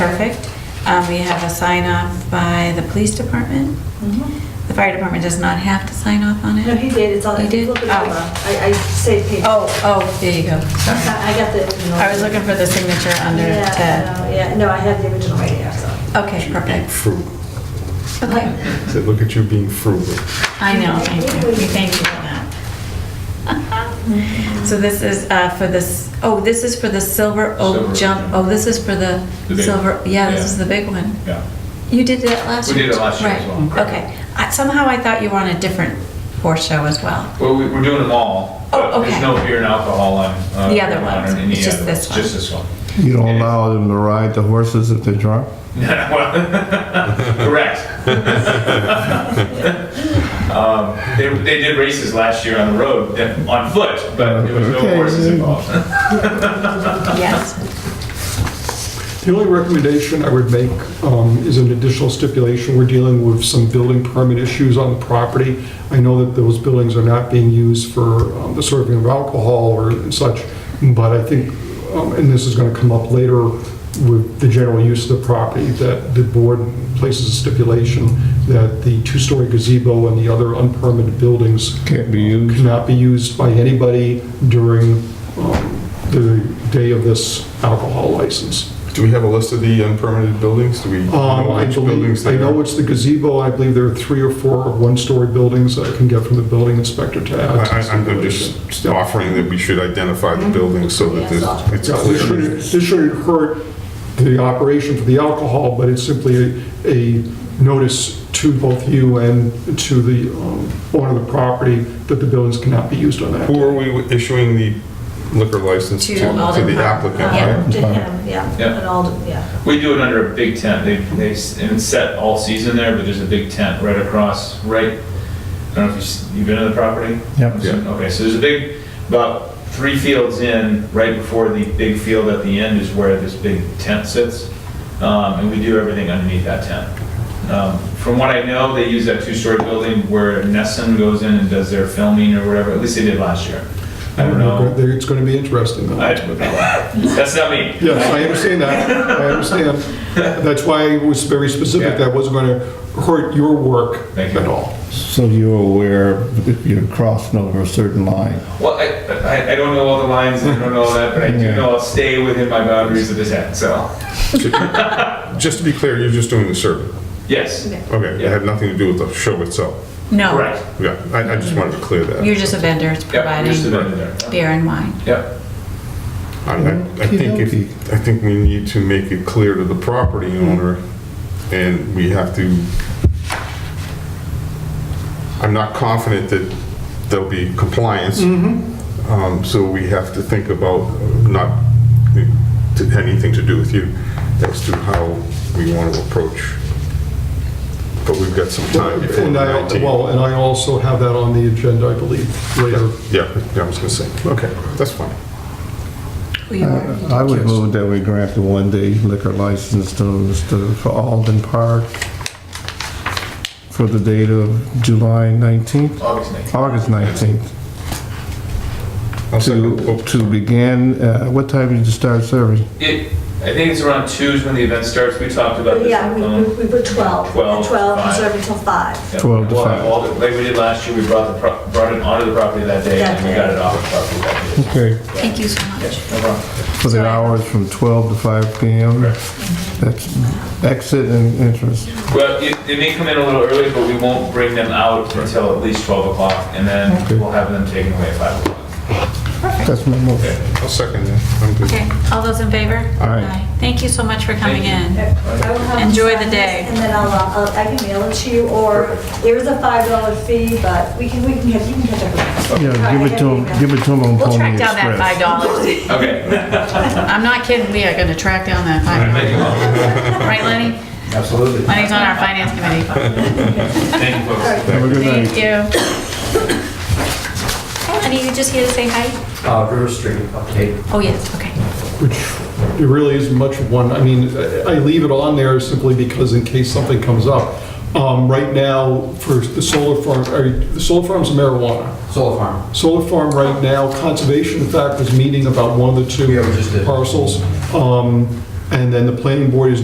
perfect. Um, We have a sign off by the police department. The fire department does not have to sign off on Mm-hmm. No, he it. did, it's all, He did? flip it Oh. over. I, I saved paper. Oh, oh, there you go, sorry. I I got the. original. I was looking for the signature under Yeah, Ted. no, Yeah, no, I have the original right here, so. Okay, Being perfect. frugal. Okay, So look at you being frugal. I know, thank you, We thank you for that. So this is uh, for this, oh, this is for the silver oak Silver, jump, yeah. oh, this is for the The big silver, one. yeah, this Yeah. is the big one. Yeah. You did that last We year? did it last year as well, Right, correct. okay. I- Somehow I thought you were on a different horse show as well. Well, we- we're doing them all. but Oh, okay. There's no beer and alcohol on. uh, The other on ones. any It's just other this ones, one. Just this one. You don't allow them to ride the horses if they're drunk? Well, Correct. Um, They, they did races last year on the road, then on foot, but there was no Okay. horses involved. Yes. The only recommendation I would make um, is an additional stipulation. We're dealing with some building permit issues on the property. I know that those buildings are not being used for um, the serving of alcohol or such, but I think, um, and this is going to come up later with the general use of the property, that the board places a stipulation that the two-story gazebo and the other unpermitted buildings Can't be used. cannot be used by anybody during um, the day of this alcohol license. Do we have a list of the unpermitted buildings? Do we Um, know I which buildings believe, I they know are? it's the gazebo, I believe there are three or four one-story buildings that I can get from the building inspector to add. to I- I- I'm the I'm just offering that we should identify the buildings so that there's- it's Yeah, This shouldn't, clear. this shouldn't hurt the operation for the alcohol, but it's simply a- a notice to both you and to the um, owner of the property that the buildings cannot be used on that. Who are we issuing the liquor license To to? To Alden the Park. applicant, Yeah. right? Um, To him, yeah. Yeah. And all, the- yeah. We do it under a big tent. They, they, s- and it's set all season there, but there's a big tent right across, right, I don't know if you've, s- you've been to the property? Yep. Yeah. Okay, so there's a big, about three fields in, right before the big field at the end is where this big tent sits. Um, and we do everything underneath that tent. Um, from what I know, they use that two-story building where Nessun goes in and does their filming or whatever, at least they did last year. I don't know. It's going to be interesting, though. I- That's not me. Yes, I understand that, I understand. That's why I was very specific, that wasn't going to hurt your work Thank you. at all. So you're aware if you're crossing over a certain line. Well, I, I, I don't know all the lines, and I don't know all that, but I do Yeah. know I'll stay within my boundaries of the tent, so, Just to be clear, you're just doing the survey. yes. Okay, it had nothing to do with the show itself. No. Correct. Yeah, I I just wanted to clear that. You're just a vendor, it's Yep, just providing about there. beer and wine. Yep, I, I- I think if, I think we need to make it clear to the property owner, and we have to, I'm not confident that there'll be compliance. Mm-hmm. Um, so we have to think about not, to- anything to do with you, as to how we want to approach. But we've got some time before And the I, 19th. well, and I also have that on the agenda, I believe, later. Yeah, yeah, I was gonna say, okay, that's fine. We- I would move that we grant the one-day liquor license to Mr. for Alden Park for the date of July 19th, August 9th. August 19th, I'll second. to, to begin, uh, what time did you start serving? It, I think it's around two is when the event starts, we talked about But this. yeah, we, um, we we put 12. 12, 12, and five. serve until 5. yeah. 12 to Well, five. all the- Like we did last year, we brought the, pro- brought it onto the property that day, and we That got day. it off the property that day. Okay. Thank you so much. No problem. For the hours from 12 to 5 PM? That's exit and entrance. Well, it- they may come in a little early, but we won't bring them out until at least 12 o'clock, and then Okay. we'll have them taken away at 5 o'clock. That's my motion. I'll second that, I'm good. Okay, all those in favor? Aye. Thank you so much for coming Thank in. I will have to Enjoy sign the this, day. And then I'll, uh, I'll, I can mail it to you, or there is a $5 fee, but we can, we can, get- you can catch up with that. Yeah, give it to him, give it to him on We'll Pony track down that five Express. dollars. Okay. I'm not kidding, we are gonna track down that five dollars. Right, Lenny? Absolutely. Lenny's on our finance committee. Thank you, folks. Have a good night. Thank you. Hey, Lenny, you just here to say hi? Uh, River Street update. Oh, yes, okay. which it really isn't much of one, I mean, I I leave it on there simply because in case something comes up. Um, Right now, for the solar farm, or the solar farm's marijuana. Solar Farm. Solar farm right now, conservation in fact was meeting about one of the two Yeah, we just did. parcels. Um, And then the planning board is